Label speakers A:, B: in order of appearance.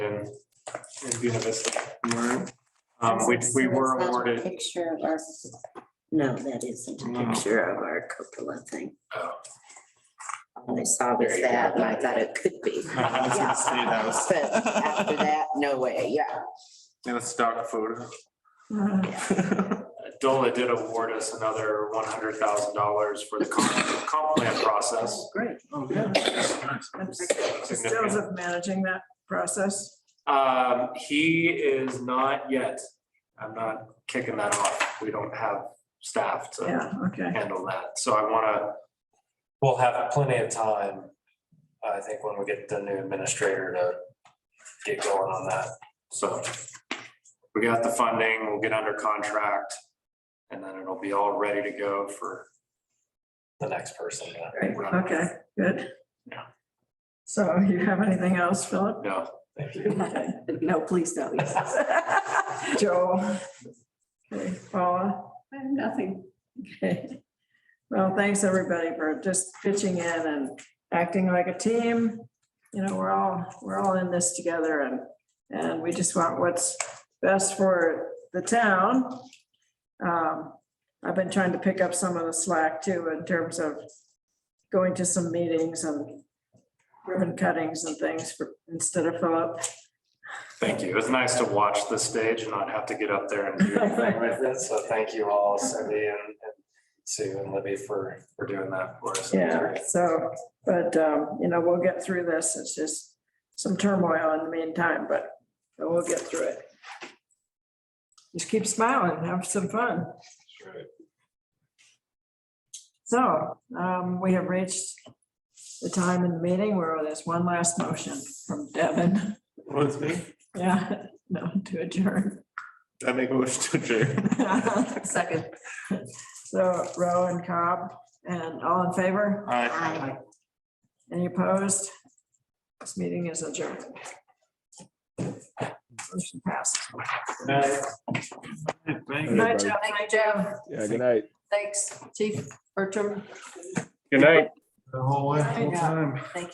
A: University. Um, which we were
B: That's a
A: awarded.
B: Picture of our, no, that isn't a
A: No.
B: picture of our cupola thing.
A: Oh.
B: All I saw was
A: There you go.
B: that, and I thought it could be.
A: No, I was gonna say that was-
B: But after that, no way, yeah.
A: And it's dog food.
C: Uh,
A: DOLA did award us another one hundred thousand dollars for the comp, comp plan process.
B: Oh, Great.
C: Stills of managing that process.
A: Um, he is not yet. I'm not kicking that off. We don't have staff to
C: Yeah, okay.
A: handle that. So I wanna, we'll have plenty of time. I think when we get the new administrator to get going on that. So we got the funding, we'll get under contract. And then it'll be all ready to go for the next person.
C: Great, Okay, good.
A: Yeah.
C: So you have anything else, Philip?
A: No, thank you.
B: No, please don't.
C: Joel? Okay, Paula?
D: I have nothing.
C: Okay. Well, thanks, everybody, for just pitching in and acting like a team. You know, we're all, we're all in this together and, and we just want what's best for the town. Um, I've been trying to pick up some of the slack too, in terms of going to some meetings and ribbon cuttings and things for, instead of Philip.
A: Thank you. It was nice to watch the stage and not have to get up there and do anything with it. So thank you all, Cindy and and Sue and Libby for, for doing that for us.
C: Yeah, so, but, um, you know, we'll get through this. It's just some turmoil in the meantime, but but we'll get through it. Just keep smiling, have some fun. So, um, we have reached the time in the meeting where there's one last motion from Devin.
E: With me,
C: Yeah, no, to adjourn.
E: I make a motion to adjourn.
C: Second. So Rowe and Cobb, and all in favor?
B: Aye.
C: Any opposed? This meeting is adjourned. Motion passed. Good night, Jeff.
D: Thank you, Joe.
F: Yeah, good night.
D: Thanks, Chief Bertram.
A: Good night.
E: The whole way,
C: whole
E: time.